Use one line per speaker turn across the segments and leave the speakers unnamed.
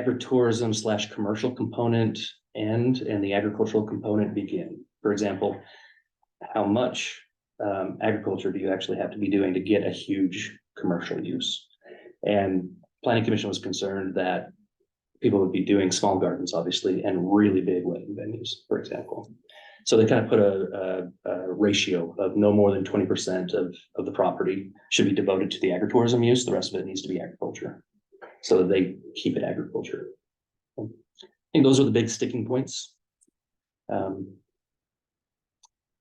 agritourism slash commercial component end and the agricultural component begin. For example, how much um, agriculture do you actually have to be doing to get a huge commercial use? And planning commission was concerned that people would be doing small gardens, obviously, and really big wedding venues, for example. So they kind of put a, a, a ratio of no more than twenty percent of, of the property should be devoted to the agritourism use. The rest of it needs to be agriculture so that they keep it agriculture. I think those are the big sticking points. Um,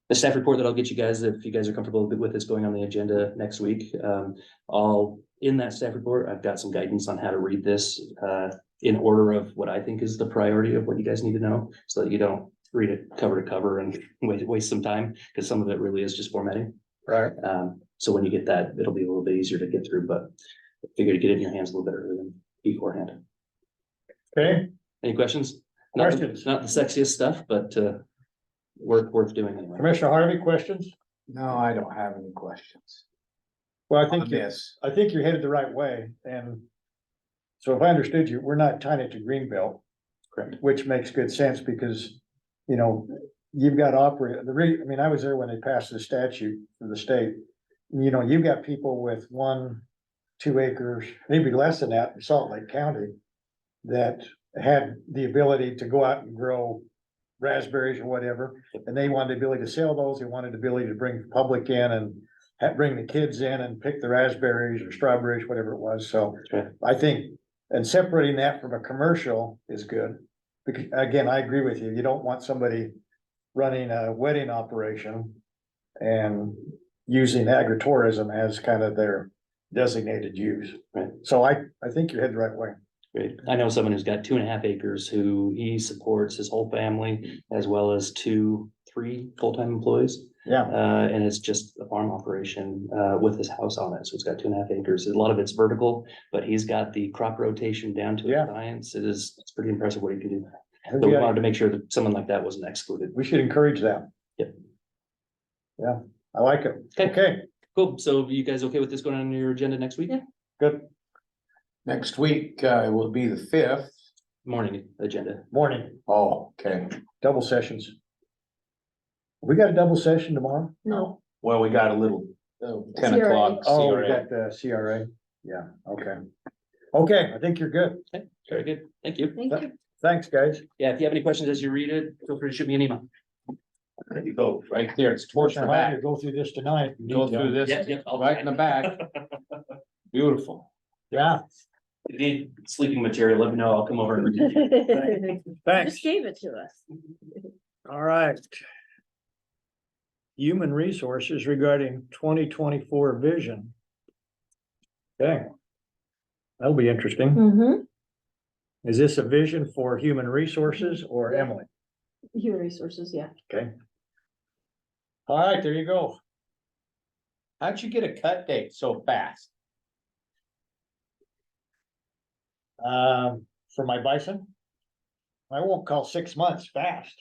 The staff report that I'll get you guys, if you guys are comfortable with this going on the agenda next week, um, I'll, in that staff report, I've got some guidance on how to read this. Uh, in order of what I think is the priority of what you guys need to know, so that you don't read it cover to cover and waste, waste some time, because some of it really is just formatting.
Right.
Um, so when you get that, it'll be a little bit easier to get through, but I figured to get it in your hands a little bit earlier than beforehand.
Okay,
Any questions? Not-
Questions?
Not the sexiest stuff, but, uh, worth, worth doing anyway.
Commissioner Harvey, questions?
No, I don't have any questions.
Well, I
on
think, you-
this.
I think you're headed the right way and so if I understood you, we're not tying it to Greenbelt,
Correct.
which makes good sense because, you know, you've got operate, the re, I mean, I was there when they passed the statute for the state. You know, you've got people with one, two acres, maybe less than that in Salt Lake County that had the ability to go out and grow raspberries or whatever, and they wanted the ability to sell those, they wanted the ability to bring the public in and ha- bring the kids in and pick the raspberries or strawberries, whatever it was, so
Right.
I think, and separating that from a commercial is good. Because, again, I agree with you, you don't want somebody running a wedding operation and using agritourism as kind of their designated use.
Right.
So I, I think you're headed the right way.
Great. I know someone who's got two and a half acres who he supports his whole family as well as two, three full-time employees.
Yeah,
Uh, and it's just a farm operation, uh, with his house on it. So it's got two and a half acres. A lot of it's vertical, but he's got the crop rotation down to a
Yeah.
science. It is, it's pretty impressive what he can do. So we
we-
wanted to make sure that someone like that wasn't excluded.
we should encourage that.
Yep.
Yeah, I like it.
Okay.
Okay,
Cool. So you guys okay with this going on your agenda next week?
good
Next week, uh, it will be the fifth.
Morning agenda.
morning,
Oh, okay.
double sessions. We got a double session tomorrow?
No,
Well, we got a little, uh, ten
CRA.
o'clock.
Oh, we
CRA.
got the CRA, yeah, okay. Okay, I think you're good.
Very good. Thank you.
thank you.
Thanks, guys.
Yeah, if you have any questions as you read it, feel free to shoot me an email.
There you go, right there. It's torch in
Commissioner
the
Hyde,
back.
you Go through this tonight.
Go through
Yeah,
this,
yeah, I'll-
right in the back. Beautiful.
Yeah,
If you need sleeping material, let me know. I'll come over. and-
thanks.
Just gave it to us.
All right. Human resources regarding twenty twenty-four vision. Okay. That'll be interesting.
Mm-hmm.
Is this a vision for human resources or Emily?
Human resources, yeah.
Okay. All right, there you go.
How'd you get a cut date so fast?
Um, for my bison. I won't call six months fast.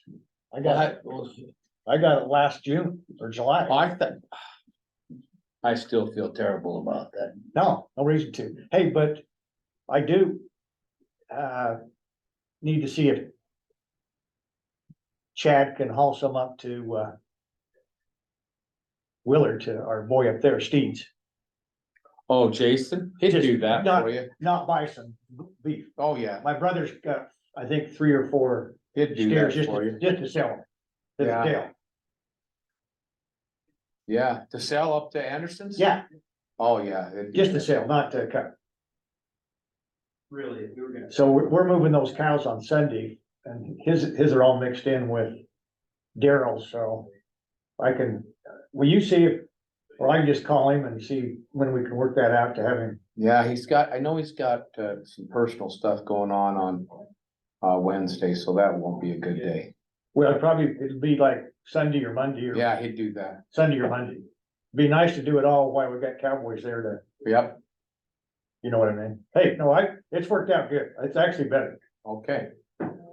I
Well,
got,
I,
it- I got it last June or July.
well, I thought. I still feel terrible about that.
No, no reason to. Hey, but I do. Uh. Need to see if. Chad can haul some up to, uh. Willard to our boy up there, Steeds,
Oh, Jason, he'd
Just
do that
not-
for you.
not bison, b- beef.
Oh, yeah,
My brother's got, I think, three or four
he'd do
steers
that
just,
for
to-
you.
just to sell. them, to
Yeah.
sell.
Yeah, to sell up to Anderson's?
Yeah,
Oh, yeah. it'd do
just to
that.
sell, not to cut.
Really, if we were gonna.
So we're, we're moving those cows on Sunday and his, his are all mixed in with Daryl's, so. I can, will you see if, or I can just call him and see when we can work that out to have him.
Yeah, he's got, I know he's got uh some personal stuff going on on uh Wednesday, so that won't be a good day.
Well, it'd probably, it'd be like Sunday or Monday or
Yeah, he'd do that.
Sunday or Monday. Be nice to do it all while we've got cowboys there to,
Yep,
you know what I mean? Hey, no, I, it's worked out good. It's actually better.
okay.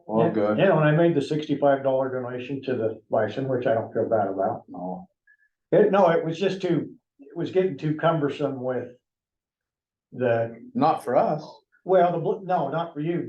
All
You
good.
know, and I made the sixty-five dollar donation to the bison, which I don't feel bad about.
Oh,
It, no, it was just too, it was getting too cumbersome with the,
not for us.
Well, the, bl- no, not for you,